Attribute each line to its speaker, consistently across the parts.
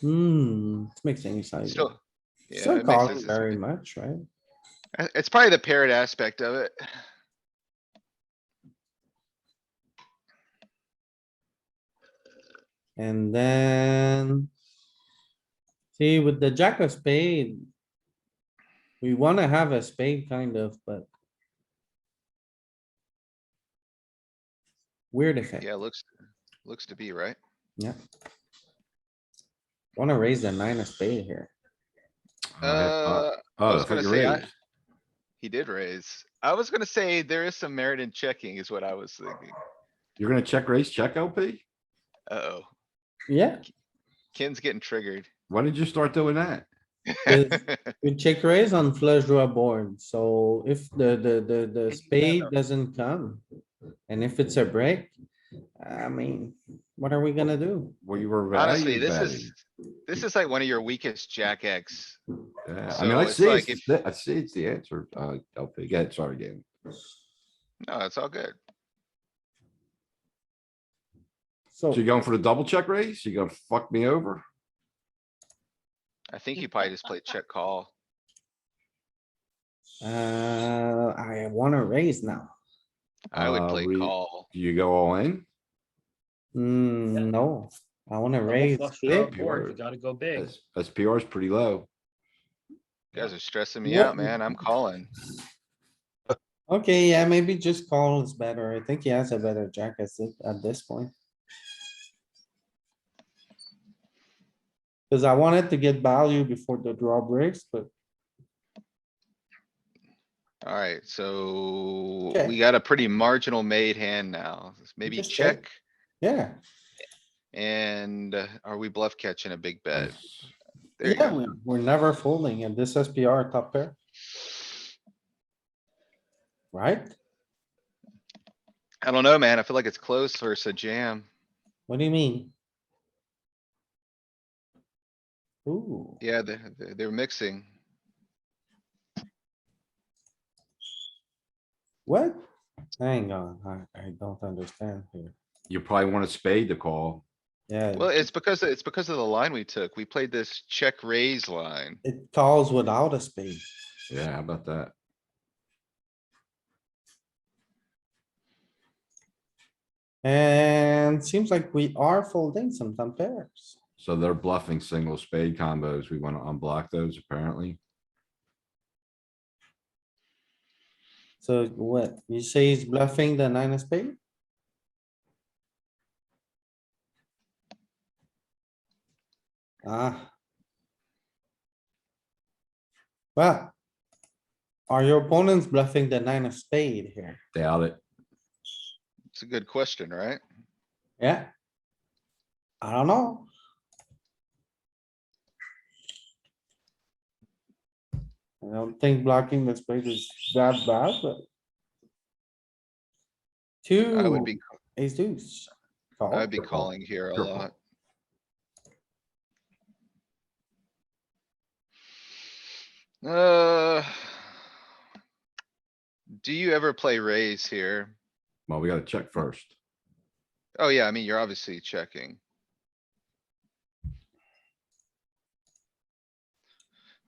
Speaker 1: Hmm, it's mixing size.
Speaker 2: Still. Yeah, it
Speaker 1: Still
Speaker 2: makes sense.
Speaker 1: calling
Speaker 2: It's-
Speaker 1: very much, right?
Speaker 2: uh, It's probably the paired aspect of it.
Speaker 1: And then. See, with the jack of spade. We wanna have a spade kind of, but. Weird effect.
Speaker 2: Yeah, looks, looks to be right.
Speaker 1: Wanna raise the nine of spade here.
Speaker 3: Oh, I thought-
Speaker 2: Uh,
Speaker 3: oh,
Speaker 2: was
Speaker 3: I thought
Speaker 2: gonna
Speaker 3: you
Speaker 2: say, I-
Speaker 3: raised.
Speaker 2: he did raise. I was gonna say there is some merit in checking is what I was thinking.
Speaker 3: You're gonna check raise, check LP?
Speaker 2: Uh-oh,
Speaker 1: Yeah,
Speaker 2: Ken's getting triggered.
Speaker 3: Why did you start doing that?
Speaker 1: Is- we check raise on flush draw board, so if the, the, the, the spade doesn't come. And if it's a break, I mean, what are we gonna do?
Speaker 3: Well, you were
Speaker 2: Honestly,
Speaker 3: value
Speaker 2: this
Speaker 3: betting.
Speaker 2: is, this is like one of your weakest jack X.
Speaker 3: Yeah, I
Speaker 2: so
Speaker 3: mean, I
Speaker 2: it's
Speaker 3: see,
Speaker 2: like
Speaker 3: it's the- I see it's the answer, uh, LP. Yeah, sorry, Dan.
Speaker 2: No, it's all good.
Speaker 1: So,
Speaker 3: So you going for the double check raise? You gonna fuck me over?
Speaker 2: I think you probably just played check call.
Speaker 1: uh, I wanna raise now.
Speaker 2: I would
Speaker 3: Uh,
Speaker 2: play
Speaker 3: we-
Speaker 2: call.
Speaker 3: Do you go all in?
Speaker 1: Mm, no, I wanna raise
Speaker 4: Double flush draw
Speaker 1: big.
Speaker 3: big
Speaker 4: board,
Speaker 3: or-
Speaker 4: You gotta go big.
Speaker 3: S- SPR is pretty low.
Speaker 2: You guys are stressing me
Speaker 1: What-
Speaker 2: out, man. I'm calling.
Speaker 1: Okay, yeah, maybe just call is better. I think he has a better jack at this, at this point. Cause I wanted to get value before the draw breaks, but
Speaker 2: Alright, so
Speaker 1: Okay.
Speaker 2: we got a pretty marginal made hand now. Maybe
Speaker 1: Just check.
Speaker 2: check
Speaker 1: yeah.
Speaker 2: and uh, are we bluff catching a big bet? There you
Speaker 1: Yeah,
Speaker 2: go.
Speaker 1: we- we're never folding and this SPR top pair, right?
Speaker 2: I don't know, man. I feel like it's close versus a jam.
Speaker 1: What do you mean? Ooh,
Speaker 2: Yeah, they're, they're- they're mixing.
Speaker 1: what? Hang on, I, I don't understand here.
Speaker 3: You probably want a spade to call.
Speaker 1: Yeah,
Speaker 2: Well, it's because, it's because of the line we took. We played this check raise line.
Speaker 1: it calls without a spade.
Speaker 3: Yeah, how about that?
Speaker 1: And seems like we are folding some top pairs.
Speaker 3: So they're bluffing single spade combos. We wanna unblock those apparently.
Speaker 1: So what, you say he's bluffing the nine of spade? Ah. Well. Are your opponents bluffing the nine of spade here?
Speaker 3: Doubt it.
Speaker 2: It's a good question, right?
Speaker 1: Yeah? I don't know. I don't think blocking the spade is that bad, but.
Speaker 2: I would
Speaker 1: Two,
Speaker 2: be,
Speaker 1: ace deuce. Call.
Speaker 2: I'd be
Speaker 3: Triple.
Speaker 2: calling here a
Speaker 3: Triple.
Speaker 2: lot. Uh. Do you ever play raise here?
Speaker 3: Well, we gotta check first.
Speaker 2: Oh, yeah, I mean, you're obviously checking.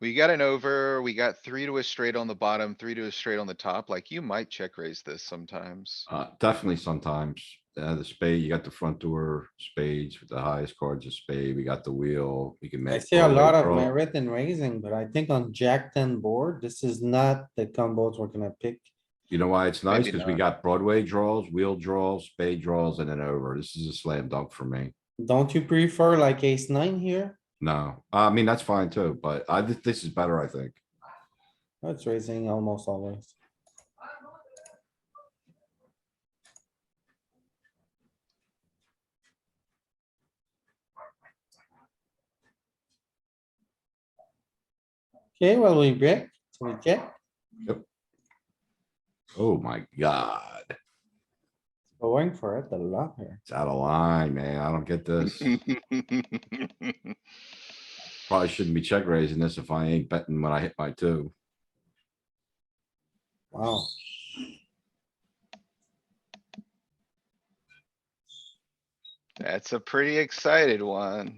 Speaker 2: We got an over, we got three to a straight on the bottom, three to a straight on the top, like you might check raise this sometimes.
Speaker 3: Uh, definitely sometimes, uh, the spade, you got the front door spades with the highest cards of spade. We got the wheel. We can make.
Speaker 1: I see a lot of
Speaker 3: draw.
Speaker 1: merit in raising, but I think on jack ten board, this is not the combos we're gonna pick.
Speaker 3: You know why it's nice?
Speaker 2: Maybe
Speaker 3: Cause we
Speaker 2: not.
Speaker 3: got Broadway draws, wheel draws, spade draws, and then over. This is a slam dunk for me.
Speaker 1: Don't you prefer like ace nine here?
Speaker 3: No, I mean, that's fine too, but I, thi- this is better, I think.
Speaker 1: That's raising almost always. Okay, well, we break, so we check,
Speaker 3: Oh my god,
Speaker 1: going for it a lot here.
Speaker 3: it's out of line, man. I don't get this. Probably shouldn't be check raising this if I ain't betting when I hit my two.
Speaker 1: Wow.
Speaker 2: That's a pretty excited one.